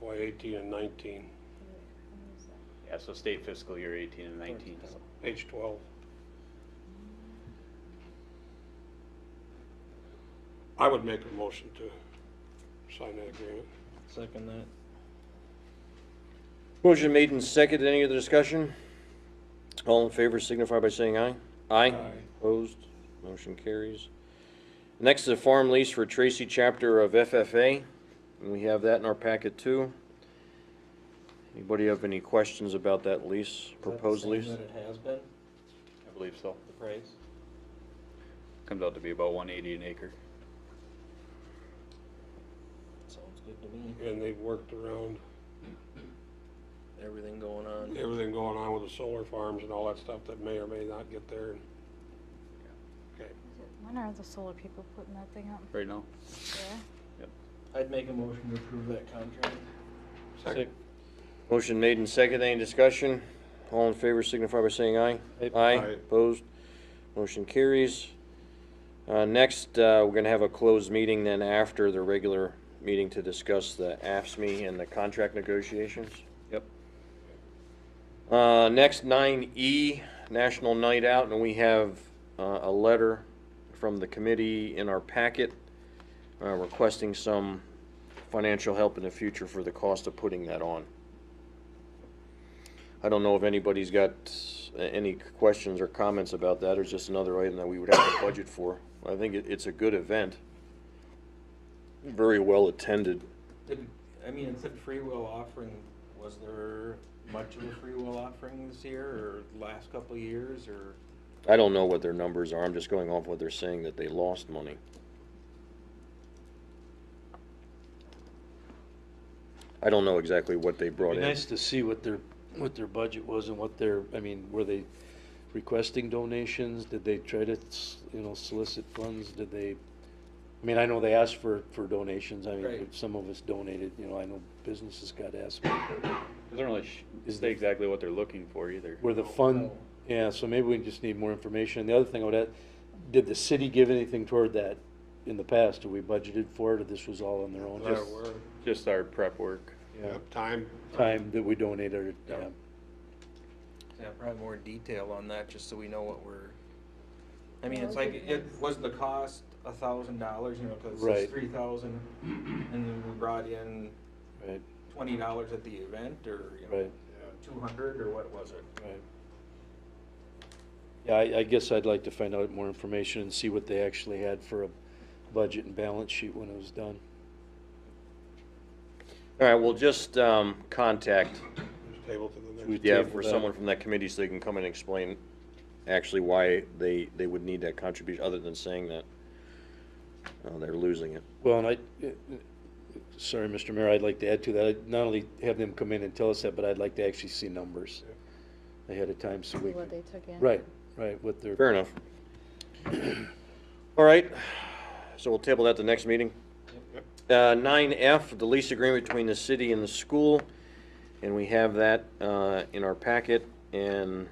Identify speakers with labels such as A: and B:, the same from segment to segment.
A: FY eighteen and nineteen,
B: Yeah, so state fiscal year 18 and 19.
A: page twelve. I would make a motion to sign that agreement.
C: Second that.
D: Motion made and seconded. Any other discussion? All in favor signify by saying aye. Aye.
A: Aye.
D: Opposed? Motion carries. Next is a farm lease for Tracy Chapter of FFA, and we have that in our packet too. Anybody have any questions about that lease, proposed lease?
C: That it has been,
B: I believe so.
C: the price?
B: Comes out to be about 180 an acre.
C: Sounds good to me.
A: And they've worked around
C: Everything going on.
A: everything going on with the solar farms and all that stuff that may or may not get there. Okay,
E: When are the solar people putting that thing up?
B: Right now?
E: Yeah.
C: I'd make a motion to approve that contract.
A: second,
D: Motion made and seconded. Any discussion? All in favor signify by saying aye. Aye.
A: Aye.
D: Opposed? Motion carries. Uh, next, uh, we're gonna have a closed meeting then after the regular meeting to discuss the AFSMI E and the contract negotiations.
B: Yep.
D: Uh, next, nine E, National Night Out, and we have, uh, a letter from the committee in our packet, uh, requesting some financial help in the future for the cost of putting that on. I don't know if anybody's got uh, any questions or comments about that, or it's just another item that we would have to budget for. I think it, it's a good event. Very well attended.
C: Did, I mean, it said free will offering, was there much of a free will offering this year or last couple of years or?
D: I don't know what their numbers are, I'm just going off what they're saying that they lost money. I don't know exactly what they brought
F: Be
D: in.
F: nice to see what their, what their budget was and what their, I mean, were they requesting donations? Did they try to, s- you know, solicit funds? Did they, I mean, I know they asked for, for donations. I mean,
C: Right.
F: some of us donated, you know, I know businesses got asked.
B: Doesn't really
F: Is
B: say
F: the-
B: exactly what they're looking for either.
F: Were the fund,
C: No.
F: yeah, so maybe we just need more information. And the other thing I would add, did the city give anything toward that in the past? Did we budgeted for it or this was all on their own?
A: that
F: Just
A: word,
B: Just our prep work.
F: yeah,
A: time,
F: Time that we donated, yeah.
C: Yeah, probably more detail on that, just so we know what we're, I mean, it's like, it, was the cost a thousand dollars, you know, cause
F: Right.
C: it's three thousand, and then we brought in
F: Right,
C: twenty dollars at the event, or, you know,
F: right.
C: two hundred, or what was it?
F: Right. Yeah, I, I guess I'd like to find out more information and see what they actually had for a budget and balance sheet when it was done.
D: All right, well, just, um, contact,
A: just table to the next.
F: We
D: yeah,
F: table
D: for
F: that.
D: someone from that committee so they can come and explain actually why they, they would need that contribution, other than saying that, uh, they're losing it.
F: Well, and I, eh, sorry, Mr. Mayor, I'd like to add to that, I'd not only have them come in and tell us that, but I'd like to actually see numbers ahead of time so we
E: What
F: can,
E: they took in.
F: right, right, what their,
D: Fair enough. All right, so we'll table that the next meeting. Uh, Nine F, the lease agreement between the city and the school, and we have that uh, in our packet. And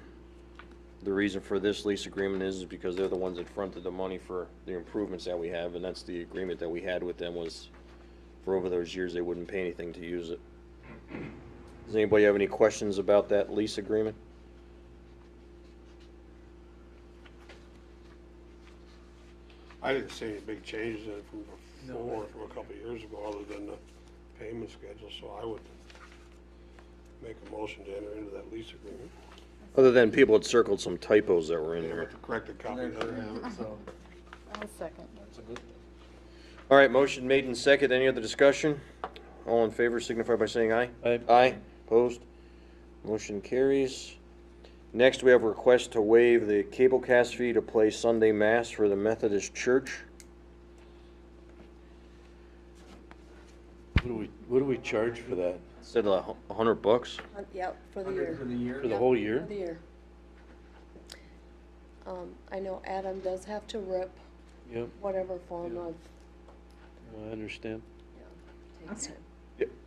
D: the reason for this lease agreement is because they're the ones that fronted the money for the improvements that we have, and that's the agreement that we had with them was for over those years, they wouldn't pay anything to use it. Does anybody have any questions about that lease agreement?
A: I didn't see any big changes in it from
C: No.
A: before, from a couple of years ago, other than the payment schedule, so I would make a motion to enter into that lease agreement.
D: Other than people had circled some typos that were in there.
A: With the corrected copy.
C: And
A: of
C: they're-
A: that.
C: So,
E: I'll second.
C: that's a good thing.
D: All right, motion made and second. Any other discussion? All in favor signify by saying aye.
F: Aye.
D: Aye. Opposed? Motion carries. Next, we have a request to waive the cable cast fee to play Sunday Mass for the Methodist Church.
F: what do we, what do we charge for that?
D: Instead of a hu- a hundred bucks,
G: Uh, Yeah, for the
C: Hundred for
G: year.
C: the year?
F: For the whole
G: For
F: year?
G: the year. Um, I know Adam does have to rip
F: Yep,
G: whatever form of,
F: I understand.
G: yeah, takes him.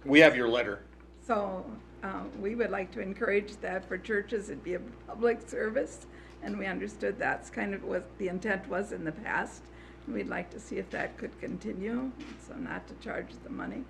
D: we have your letter.
H: So um, we would like to encourage that for churches, it'd be a public service, and we understood that's kind of what the intent was in the past. We'd like to see if that could continue, so not to charge the money.